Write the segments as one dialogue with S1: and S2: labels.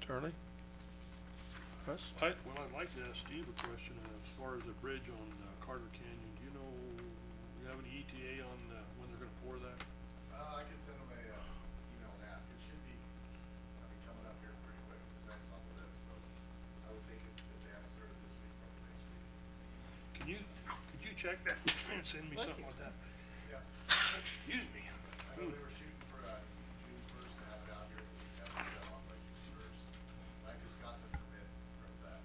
S1: Charlie? Russ?
S2: I, well, I'd like to ask Steve a question uh, as far as the bridge on uh, Carter Canyon. Do you know, you have any ETA on uh, when they're gonna pour that?
S3: Uh, I can send them a, uh, email and ask, it should be, I mean, coming up here pretty quick, because next month it is, so I would think if, if they haven't started this week, probably next week.
S2: Can you, could you check that and send me
S4: Bless
S2: something
S4: you.
S2: like that?
S3: Yeah,
S2: Excuse me.
S3: I know they were shooting for, uh, June first to have it out here, but we haven't got it on by June first. I just got the permit from that,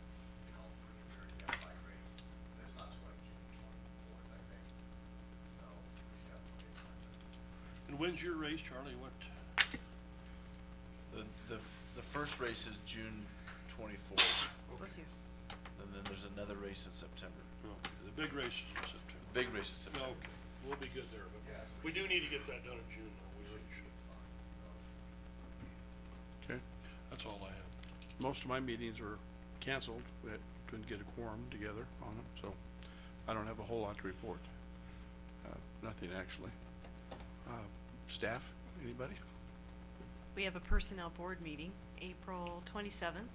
S3: you know, for the very down by grace, and it's not till like June twenty-fourth, I think, so we should have plenty of time to.
S2: And when's your race, Charlie? What,
S5: The, the, f- the first race is June twenty-fourth,
S4: Bless you.
S5: and then there's another race in September.
S2: okay, the big race is in September.
S5: Big race is September.
S2: Okay, we'll be good there, but
S3: Yes.
S2: we do need to get that done in June, though. We really should.
S1: Okay,
S2: That's all I have.
S1: most of my meetings were canceled, we had- couldn't get a quorum together on them, so I don't have a whole lot to report. Uh, nothing actually. Uh, staff, anybody?
S4: We have a personnel board meeting, April twenty-seventh,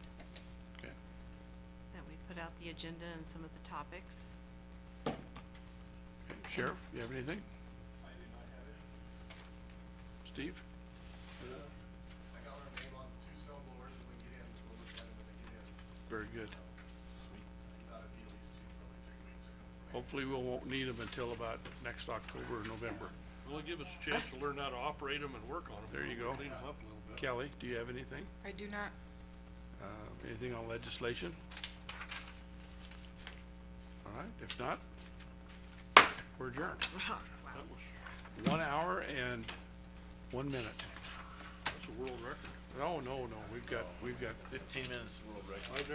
S1: Okay,
S4: that we put out the agenda and some of the topics.
S1: Okay. Sheriff, you have anything? Steve?
S3: I got our name on two snow blowers, and we get in, we'll look at them when they get in.
S1: Very good.
S3: Not if you lease two, probably three weeks ago.
S1: Hopefully we won't need them until about next October or November.
S2: Well, it'll give us a chance to learn how to operate them and work on them.
S1: There you go.
S2: Clean them up a little bit.
S1: Kelly, do you have anything?
S6: I do not.
S1: Uh, anything on legislation? All right, if not, we're adjourned.
S4: Wow.
S2: That was,
S1: One hour and one minute. Oh,
S2: that's a world record.
S1: No, no, no, we've got, we've got
S5: Fifteen minutes world record.